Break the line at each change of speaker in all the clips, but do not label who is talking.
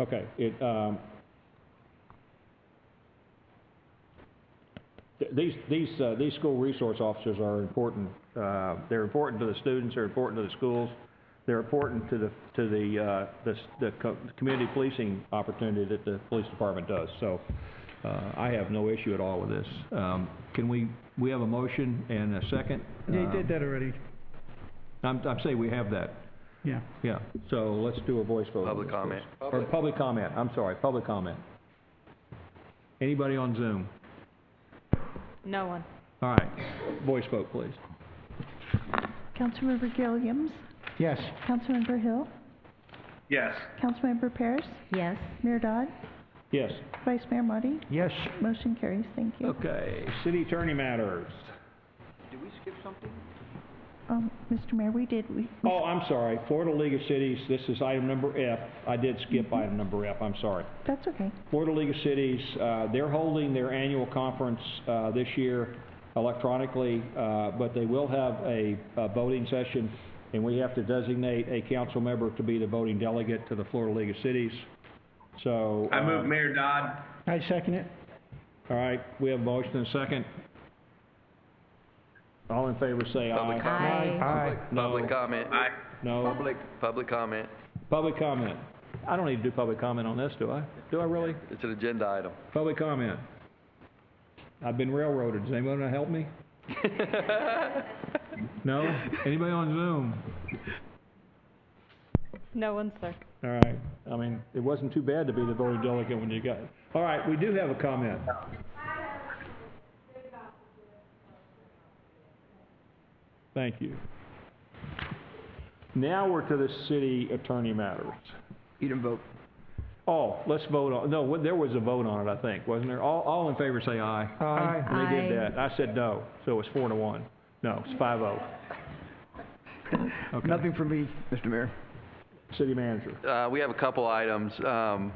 Okay, it, um, th- these, these, uh, these school resource officers are important. Uh, they're important to the students, they're important to the schools, they're important to the, to the, uh, the, s- the co- community policing opportunity that the police department does. So, uh, I have no issue at all with this. Um, can we, we have a motion and a second?
They
Um,
did that already,
I'm, I'm saying we have that,
yeah.
yeah. So let's do a voice vote. on
Public
this, please.
comment.
Or public comment, I'm sorry, public comment. Anybody on Zoom?
No one.
All right, voice vote, please.
Councilmember Gilliams,
Yes.
Councilmember Hill,
Yes.
Councilmember Paris,
Yes.
Mayor Dodd,
Yes.
Vice Mayor Marty.
Yes.
Motion carries, thank you.
Okay, city attorney matters.
Um, Mr. Mayor, we did, we, we-
Oh, I'm sorry, Florida League of Cities, this is item number F. I did skip item number F, I'm sorry.
that's okay.
Florida League of Cities, uh, they're holding their annual conference uh, this year electronically, uh, but they will have a a voting session, and we have to designate a council member to be the voting delegate to the Florida League of Cities. So...
I
uh,
move Mayor Dodd.
I second it.
All right, we have a motion and a second. All in favor, say
Public
aye.
comment.
Aye.
Public comment. Aye.
No,
Public, public comment.
public comment. I don't need to do public comment on this, do I? Do I really?
It's an agenda item.
Public comment. I've been railroaded. Does anyone want to help me? No? Anybody on Zoom?
No one, sir.
All right, I mean, it wasn't too bad to be the voting delegate when you got it. All right, we do have a comment. Thank you. Now we're to the city attorney matters.
You didn't vote.
Oh, let's vote on, no, there was a vote on it, I think, wasn't there? All, all in favor say aye.
Aye.
They did
Aye.
that. I said no, so it's four to one. No, it's five oh. Okay.
Nothing for me, Mr. Mayor.
City manager.
Uh, we have a couple items. Um,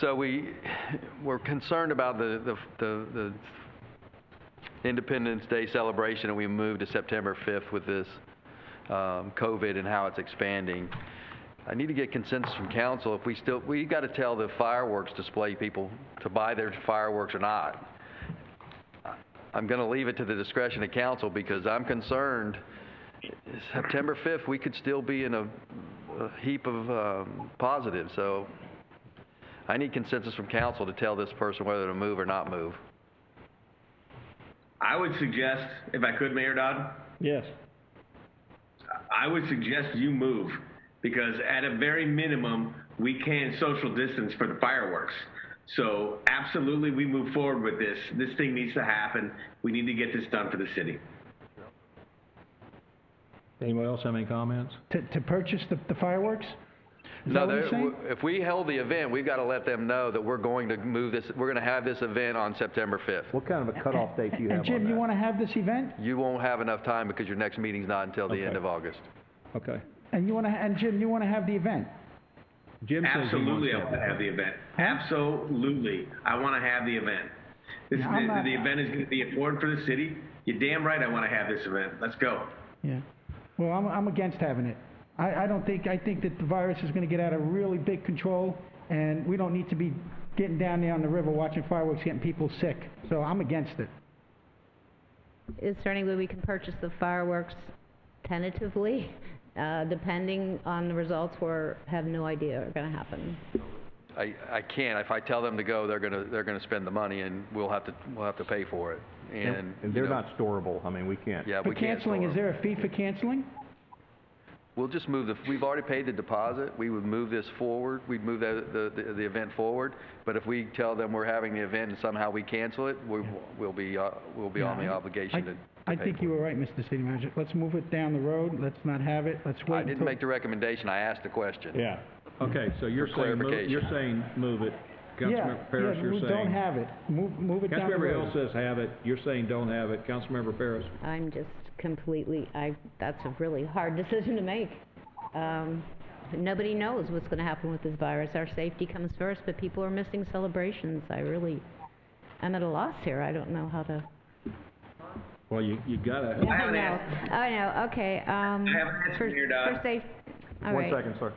so we, we're concerned about the, the, the, the Independence Day celebration, and we moved to September 5th with this, um, COVID and how it's expanding. I need to get consensus from council if we still, we gotta tell the fireworks display people to buy their fireworks or not. I'm gonna leave it to the discretion of council because I'm concerned, September 5th, we could still be in a a heap of um, positives, so I need consensus from council to tell this person whether to move or not move.
I would suggest, if I could, Mayor Dodd,
Yes.
I would suggest you move because at a very minimum, we can social distance for the fireworks. So absolutely, we move forward with this. This thing needs to happen. We need to get this done for the city.
Anybody else have any comments?
To, to purchase the the fireworks? Is that
No,
what you're
there-
saying?
w- if we held the event, we've got to let them know that we're going to move this, we're going to have this event on September 5th.
What kind of a cutoff date do you have
And
on that?
Jim, you wanna have this event?
You won't have enough time because your next meeting's not until the end
Okay.
of August.
Okay.
And you wanna, and Jim, you wanna have the event?
Jim says he wants
Absolutely,
to
I
have
want to
it.
have the event. Absolutely, I want to have the event. This,
No, I'm
the,
not-
the event is going to be important for the city. You're damn right I want to have this event. Let's go.
Yeah. Well, I'm, I'm against having it. I, I don't think, I think that the virus is gonna get out of really big control, and we don't need to be getting down there on the river watching fireworks, getting people sick. So I'm against it.
Is there any way we can purchase the fireworks tentatively, uh, depending on the results? We're, have no idea are gonna happen.
I, I can't, if I tell them to go, they're going to, they're going to spend the money and we'll have to, we'll have to pay for it. And,
And
you
they're
know,
not storable, I mean, we can't.
Yeah,
For
we can't
canceling,
store
is
'em.
there a fee for canceling?
We'll just move the, we've already paid the deposit, we would move this forward, we'd move the, the, the event forward, but if we tell them we're having the event and somehow we cancel it, we, we'll be, uh, we'll be on the
Yeah, I-
obligation to to
I, I
pay
think
for
you were right, Mr. City Manager. Let's move it down the road. Let's not have it. Let's
it.
wait
I didn't
until-
make the recommendation, I asked the question.
Yeah. Okay, so you're saying, move-
clarification.
you're saying move it.
Yeah,
Councilmember Paris,
yeah,
you're
we
saying.
don't have it. Move, move it down the
Councilmember Hill
road.
says have it, you're saying don't have it. Councilmember Paris?
I'm just completely, I, that's a really hard decision to make. Um, nobody knows what's gonna happen with this virus. Our safety comes first, but people are missing celebrations. I really, I'm at a loss here. I don't know how to.
Well, you, you gotta.
I
haven't
know.
asked.
I know, okay, um.
haven't asked
for-
Mayor Dodd.
For safe, all
One
right. Uh,
second, sir.